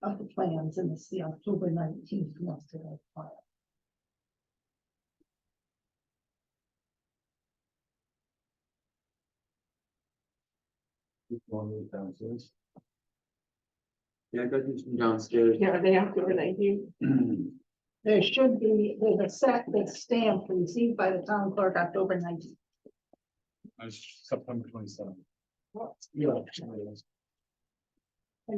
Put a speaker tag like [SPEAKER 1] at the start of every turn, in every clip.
[SPEAKER 1] of the plans and it's the October nineteenth muster file.
[SPEAKER 2] One of the downstairs.
[SPEAKER 3] Yeah, I got these from downstairs.
[SPEAKER 4] Yeah, they have to, they do.
[SPEAKER 1] There should be, there's a set that's stamped received by the town clerk October nineteenth.
[SPEAKER 2] I was September twenty seventh.
[SPEAKER 1] And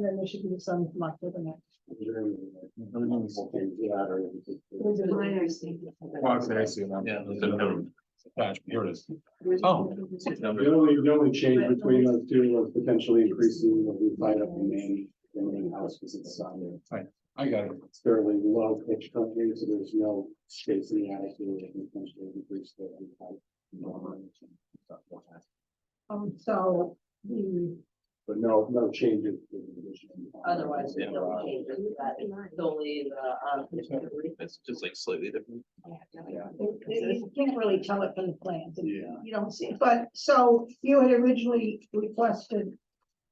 [SPEAKER 1] then there should be some from October nineteenth.
[SPEAKER 4] There's a line I see.
[SPEAKER 2] I see that. Yeah. there's a note. Gosh, here it is. Oh.
[SPEAKER 5] The only, the only change between those two was potentially increasing what we light up in main, in main house, because it's on there.
[SPEAKER 2] I got it.
[SPEAKER 5] It's fairly low pitch up here, so there's no space in the attic, so we can potentially increase the. height.
[SPEAKER 1] Um, so the,
[SPEAKER 5] But no, no changes. to the addition.
[SPEAKER 6] Otherwise, we
[SPEAKER 2] Yeah.
[SPEAKER 6] don't change it, that is solely the, um, petition brief.
[SPEAKER 3] It's just like slightly different.
[SPEAKER 1] it- it- you can't really tell it from the plans. and
[SPEAKER 5] Yeah.
[SPEAKER 1] You don't see, it. but so you had originally requested,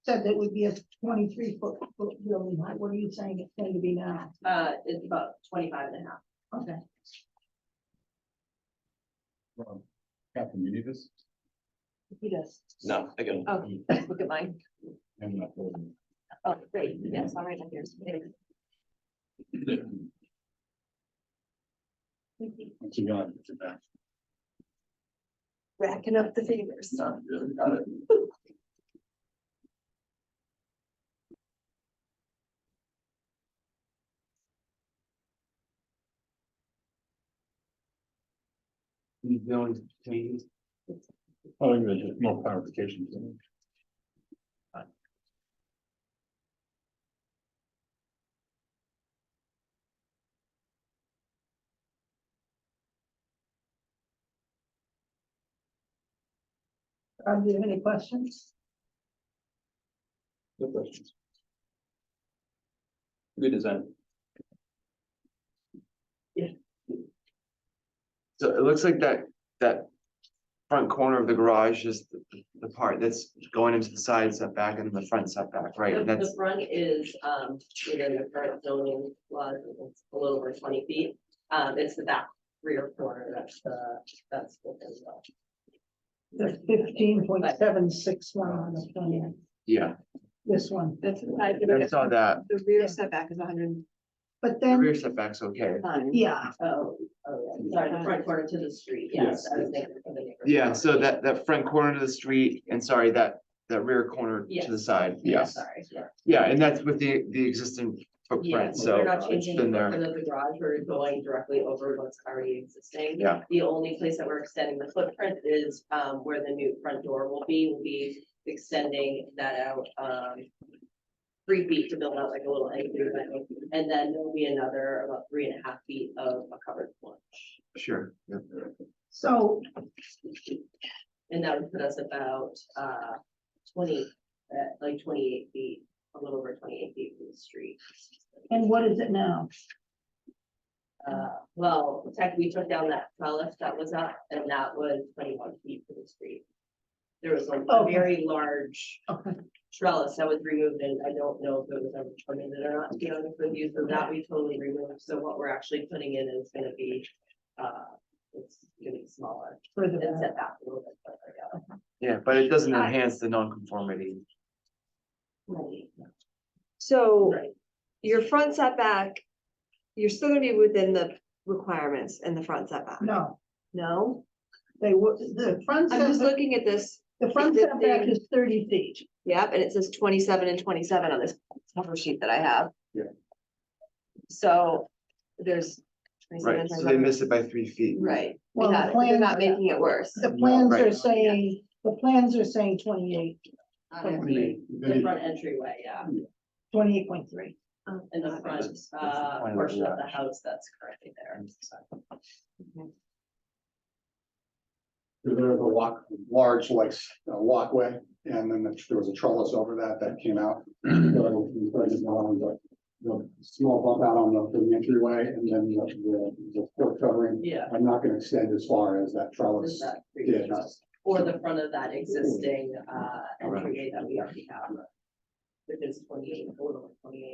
[SPEAKER 1] said that it would be a twenty-three foot, foot building height. What are you saying it's going to be now?
[SPEAKER 6] uh, it's about twenty-five and a half.
[SPEAKER 1] Okay.
[SPEAKER 2] Wrong. Captain, you need this?
[SPEAKER 1] He does.
[SPEAKER 3] No, I got it.
[SPEAKER 6] Look at mine.
[SPEAKER 2] I'm not holding it.
[SPEAKER 6] Oh, great, yes, all right, I'm here.
[SPEAKER 2] What you got? It's your back.
[SPEAKER 6] Racking up the fingers.
[SPEAKER 3] These buildings change.
[SPEAKER 2] Oh, there's just more clarifications. in it.
[SPEAKER 1] Um, do you have any questions?
[SPEAKER 3] No questions. Good design. Yeah. So it looks like that, that front corner of the garage is the- the part that's going into the side setback and the front setback, right?
[SPEAKER 6] The
[SPEAKER 3] And
[SPEAKER 6] the
[SPEAKER 3] that's,
[SPEAKER 6] front is, um, within the current zoning laws, it's a little over twenty feet. Um, it's the back rear corner, that's the, that's what is, uh,
[SPEAKER 1] There's fifteen point seven six one on the plan,
[SPEAKER 3] yeah,
[SPEAKER 1] this one,
[SPEAKER 4] That's the side.
[SPEAKER 3] I saw that.
[SPEAKER 4] The rear setback is hundred and
[SPEAKER 1] but
[SPEAKER 3] The
[SPEAKER 1] then,
[SPEAKER 3] Rear setback's okay.
[SPEAKER 4] five.
[SPEAKER 1] yeah,
[SPEAKER 6] oh, oh, yeah, sorry, the front corner to the street, yes.
[SPEAKER 5] Yes,
[SPEAKER 6] I was
[SPEAKER 5] yes.
[SPEAKER 6] thinking of the neighbor's
[SPEAKER 3] Yeah,
[SPEAKER 6] house.
[SPEAKER 3] so that, that front corner to the street, and sorry, that, that rear corner to the
[SPEAKER 6] Yes.
[SPEAKER 3] side,
[SPEAKER 6] Yeah,
[SPEAKER 3] yes.
[SPEAKER 6] Sorry, yeah.
[SPEAKER 3] Yeah, and that's with the, the existing
[SPEAKER 6] Yeah,
[SPEAKER 3] footprint, so
[SPEAKER 6] we're not
[SPEAKER 3] it's
[SPEAKER 6] changing the
[SPEAKER 3] been there.
[SPEAKER 6] footprint of the garage, we're going directly over what's already existing.
[SPEAKER 3] Yeah.
[SPEAKER 6] The only place that we're extending the footprint is um where the new front door will be, we'll be extending that out um. Three feet to build out like a little entry, but- and then there'll be another about three and a half feet of a covered porch.
[SPEAKER 3] Sure. yeah.
[SPEAKER 1] so
[SPEAKER 6] And that would put us about uh twenty, uh like twenty-eight feet, a little over twenty-eight feet from the street.
[SPEAKER 1] And what is it now?
[SPEAKER 6] Uh, well, tech, we took down that trellis that was up and that was twenty-one feet from the street. There was like a
[SPEAKER 1] Okay.
[SPEAKER 6] very large
[SPEAKER 1] Okay.
[SPEAKER 6] trellis that was removed and I don't know if it was ever terminated or not, to be honest with you, so that we totally removed. So what we're actually putting in is gonna be, uh, it's gonna be smaller
[SPEAKER 1] For the,
[SPEAKER 6] and set back a little bit further down.
[SPEAKER 3] Yeah, but it doesn't enhance the nonconformity.
[SPEAKER 6] Right.
[SPEAKER 4] So
[SPEAKER 6] Right.
[SPEAKER 4] your front setback, you're still gonna be within the requirements in the front setback,
[SPEAKER 1] no,
[SPEAKER 4] no?
[SPEAKER 1] they were, the front
[SPEAKER 4] I'm just
[SPEAKER 1] setback,
[SPEAKER 4] looking at this,
[SPEAKER 1] the front
[SPEAKER 4] the
[SPEAKER 1] setback
[SPEAKER 4] thing-
[SPEAKER 1] is thirty feet.
[SPEAKER 4] yep, and it says twenty-seven and twenty-seven on this cover sheet that I have.
[SPEAKER 5] Yeah.
[SPEAKER 4] So there's. 27
[SPEAKER 3] Right,
[SPEAKER 4] and
[SPEAKER 3] so they
[SPEAKER 4] 27.
[SPEAKER 3] miss it by three feet.
[SPEAKER 4] Right, we
[SPEAKER 1] Well, the
[SPEAKER 4] got it, they're
[SPEAKER 1] plans-
[SPEAKER 4] not making it worse.
[SPEAKER 1] The plans are
[SPEAKER 3] right.
[SPEAKER 1] saying, the plans are saying twenty-eight,
[SPEAKER 6] The front entryway, yeah,
[SPEAKER 1] twenty-eight point three.
[SPEAKER 6] and the front, uh,
[SPEAKER 3] Fine,
[SPEAKER 6] portion of
[SPEAKER 3] yeah.
[SPEAKER 6] the house that's currently there.
[SPEAKER 5] There was a walk, large like s- uh, walkway, and then the- there was a trellis over that that came out. So, we started going with The the small bump out on the from the entryway and then the, the, the floor covering.
[SPEAKER 6] Yeah.
[SPEAKER 5] I'm not gonna extend as far as that
[SPEAKER 6] Is
[SPEAKER 5] trellis.
[SPEAKER 6] that free
[SPEAKER 5] Yeah,
[SPEAKER 6] trust? Or the front of that existing uh entryway that we already have. Which is twenty eight, a little over twenty